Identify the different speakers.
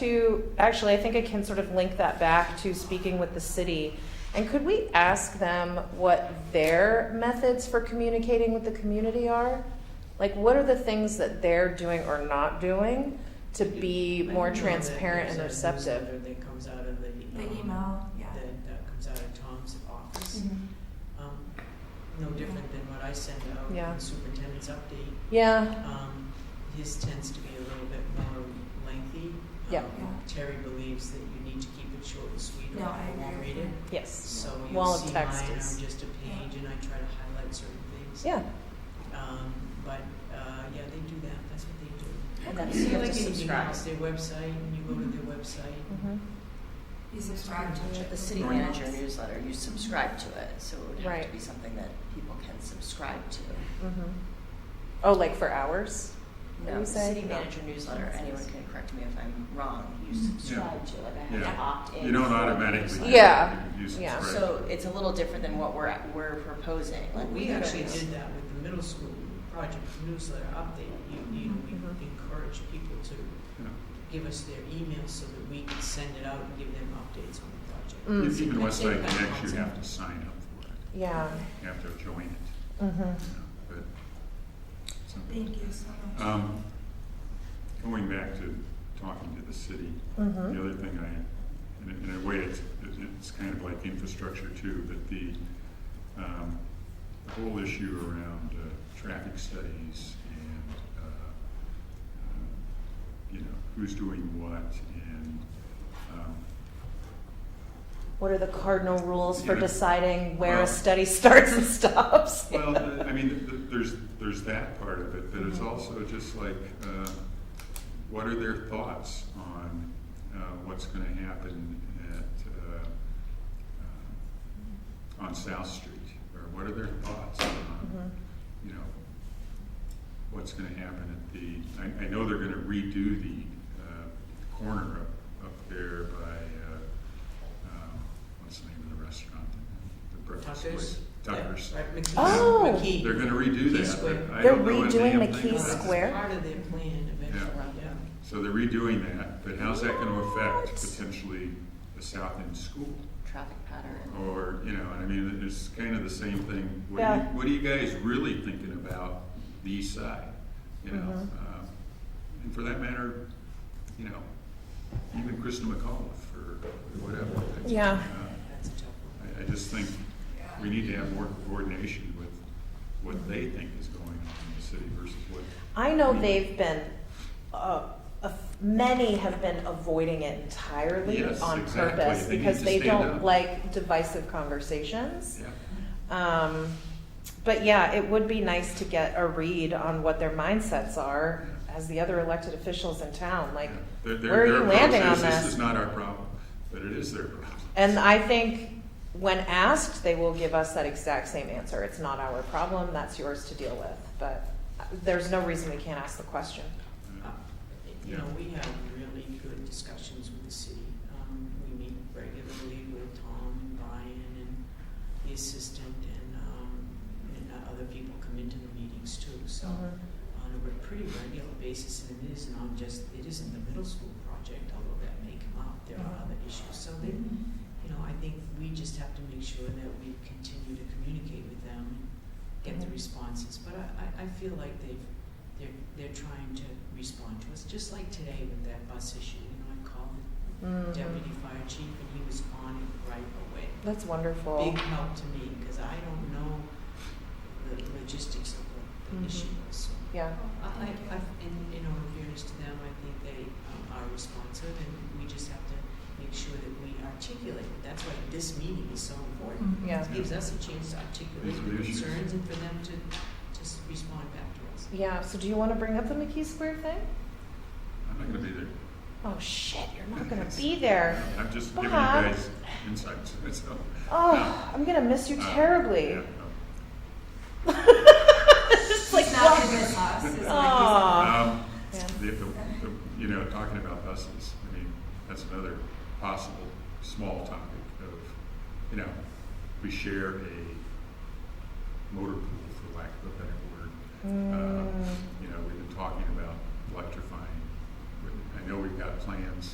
Speaker 1: To, actually, I think I can sort of link that back to speaking with the city. And could we ask them what their methods for communicating with the community are? Like, what are the things that they're doing or not doing to be
Speaker 2: I
Speaker 1: more
Speaker 2: know that
Speaker 1: transparent and
Speaker 2: there's a
Speaker 1: receptive?
Speaker 2: newsletter That comes out of the.
Speaker 3: The
Speaker 2: um,
Speaker 3: email, yeah.
Speaker 2: That, that comes out of Tom's office,
Speaker 4: Mm-hmm.
Speaker 2: um, no different than what I send out in
Speaker 1: Yeah.
Speaker 2: the superintendent's update.
Speaker 1: Yeah,
Speaker 2: Um, his tends to be a little bit more lengthy.
Speaker 1: Yeah.
Speaker 2: Um,
Speaker 3: Yeah.
Speaker 2: Terry believes that you need to keep it short and sweet or
Speaker 3: No, I
Speaker 2: people won't
Speaker 3: agree
Speaker 2: read
Speaker 3: with
Speaker 2: it.
Speaker 3: that.
Speaker 1: yes,
Speaker 2: So
Speaker 1: Wall
Speaker 2: you'll
Speaker 1: of
Speaker 2: see mine,
Speaker 1: text
Speaker 2: I'm
Speaker 1: is-
Speaker 2: just a page and I try to highlight certain things.
Speaker 1: yeah.
Speaker 2: Um, but, uh, yeah, they do that, that's what they do.
Speaker 1: And
Speaker 2: You
Speaker 1: that's-
Speaker 2: see
Speaker 1: you have
Speaker 2: like
Speaker 1: to
Speaker 2: anything
Speaker 1: subscribe.
Speaker 2: else, their website, and you go to their website,
Speaker 1: Mhm.
Speaker 3: You subscribe to it.
Speaker 4: The city
Speaker 3: Yeah.
Speaker 4: manager newsletter, you subscribe to it, so it would have
Speaker 1: Right.
Speaker 4: to be something that people can subscribe to.
Speaker 1: Mhm. Oh, like for hours? What do
Speaker 4: No,
Speaker 1: you
Speaker 4: the
Speaker 1: say?
Speaker 4: city
Speaker 1: No.
Speaker 4: manager newsletter, anyone can correct me if I'm wrong, you subscribe to, it. like I have
Speaker 5: Yeah.
Speaker 4: to opt in.
Speaker 5: You don't
Speaker 4: for the
Speaker 5: automatically.
Speaker 4: newsletter.
Speaker 1: Yeah.
Speaker 5: You use it,
Speaker 1: Yeah.
Speaker 5: right.
Speaker 4: So it's a little different than what we're, we're proposing, like we
Speaker 2: We actually
Speaker 4: don't-
Speaker 2: did that with the middle school project newsletter update. You, you know, we
Speaker 1: Mhm.
Speaker 2: encourage people to
Speaker 5: Yeah.
Speaker 2: give us their emails so that we can send it out and give them updates on the project.
Speaker 1: Mm.
Speaker 5: If Even
Speaker 2: I
Speaker 5: Westlake
Speaker 2: think that
Speaker 5: Connect, you
Speaker 2: helps.
Speaker 5: have to sign up for it,
Speaker 1: Yeah.
Speaker 5: you have to join it,
Speaker 1: Mhm.
Speaker 5: you know, but. so-
Speaker 3: Thank you so much.
Speaker 5: Um, Going back to talking to the city,
Speaker 1: Mhm.
Speaker 5: the other thing I, in a- in a way, it's, it's kind of like infrastructure too, but the, um, the whole issue around uh, traffic studies and, uh, um, you know, who's doing what and, um,
Speaker 1: What are the cardinal rules for
Speaker 5: Yeah.
Speaker 1: deciding where a
Speaker 5: Well-
Speaker 1: study starts and stops?
Speaker 5: Well, the- I mean, th- th- there's, there's that part of it, but it's
Speaker 1: Mhm.
Speaker 5: also just like, uh, what are their thoughts on uh, what's gonna happen at, uh, uh, on South Street? Or what are their thoughts on,
Speaker 1: Mhm.
Speaker 5: you know, what's gonna happen at the, I, I know they're gonna redo the uh, corner up, up there by, uh, um, what's the name of the restaurant? The breakfast
Speaker 2: Tuckers?
Speaker 5: place? Tuckers.
Speaker 2: Yeah, Right, McKee.
Speaker 1: Oh.
Speaker 2: McKee.
Speaker 5: They're gonna redo
Speaker 2: Key
Speaker 5: that,
Speaker 2: Square.
Speaker 5: but I
Speaker 1: They're
Speaker 5: don't know a
Speaker 1: redoing
Speaker 5: damn
Speaker 1: the
Speaker 5: thing
Speaker 1: Key
Speaker 5: about it.
Speaker 1: Square?
Speaker 2: Part of their plan eventually, yeah.
Speaker 5: So they're redoing that, but how's that gonna
Speaker 1: What?
Speaker 5: affect potentially the South End School?
Speaker 4: traffic pattern.
Speaker 5: Or, you know, I mean, it's kind of the same thing. What are you,
Speaker 1: Yeah.
Speaker 5: what are you guys really thinking about the east side? You know,
Speaker 1: Mhm.
Speaker 5: um, and for that matter, you know, even Kristen McAuliffe or whatever.
Speaker 1: Yeah.
Speaker 5: Uh,
Speaker 2: That's a tough one.
Speaker 5: I, I just think we need to have more coordination with what they think is going on in the city versus what.
Speaker 1: I know they've been, uh, a f- many have been avoiding it entirely
Speaker 5: Yes,
Speaker 1: on
Speaker 5: exactly.
Speaker 1: purpose
Speaker 5: They need
Speaker 1: because
Speaker 5: to
Speaker 1: they
Speaker 5: stand
Speaker 1: don't
Speaker 5: up.
Speaker 1: like divisive conversations.
Speaker 5: Yeah,
Speaker 1: Um, but yeah, it would be nice to get a read on what their mindsets are as the other elected officials in town. Like,
Speaker 5: yeah. Their- their-
Speaker 1: where are
Speaker 5: their
Speaker 1: you
Speaker 5: approach
Speaker 1: landing
Speaker 5: is,
Speaker 1: on
Speaker 5: This
Speaker 1: this?
Speaker 5: is not our problem, but it is their problem.
Speaker 1: And I think when asked, they will give us that exact same answer. It's not our problem, that's yours to deal with. But uh, there's no reason we can't ask the question.
Speaker 2: Uh,
Speaker 5: Yeah.
Speaker 2: You
Speaker 5: Yeah.
Speaker 2: know, we have really good discussions with the city. Um, we meet regularly with Tom and Brian and the assistant and, um, and uh, other people come into the meetings too, so.
Speaker 1: Mhm.
Speaker 2: On a pretty regular basis, and it is not just, it isn't the middle school project, although that may come up, there are other issues. So they, you know, I think we just have to make sure that we continue to communicate with them and get the
Speaker 1: Mhm.
Speaker 2: responses. But I, I, I feel like they've, they're, they're trying to respond to us, just like today with that bus issue. You know, I called the
Speaker 1: Mm.
Speaker 2: deputy fire chief and he was on it right away.
Speaker 1: That's wonderful.
Speaker 2: Big help to me, because I don't know the logistics of what
Speaker 1: Mhm.
Speaker 2: the issue was, so.
Speaker 1: Yeah.
Speaker 2: Uh, I, I, in, in all fairness to them, I think they um, are responsive, and we just have to make sure that we articulate. That's why this meeting is so important.
Speaker 3: Mhm.
Speaker 1: Yeah.
Speaker 2: It gives us a chance to articulate
Speaker 5: These are
Speaker 2: the
Speaker 5: the issues.
Speaker 2: concerns and for them to just respond back to us.
Speaker 1: Yeah, so do you want to bring up the McKee Square thing?
Speaker 5: I'm not gonna be there.
Speaker 1: Oh shit, you're not going to be there.
Speaker 5: I'm just giving you
Speaker 1: Bob.
Speaker 5: guys insights, so.
Speaker 1: Oh, I'm going to miss you
Speaker 5: uh,
Speaker 1: terribly.
Speaker 5: yeah, no.
Speaker 1: It's like,
Speaker 3: It's not
Speaker 1: what?
Speaker 3: in this house. It's
Speaker 2: Ah.
Speaker 3: not
Speaker 1: Aw.
Speaker 5: Um,
Speaker 1: Yeah.
Speaker 5: the, the, the- you know, talking about buses, I mean, that's another possible small topic of, you know, we share a motor pool, for lack of a better word. Um,
Speaker 1: Mm.
Speaker 5: You know, we've been talking about electrifying, We- I know we've got plans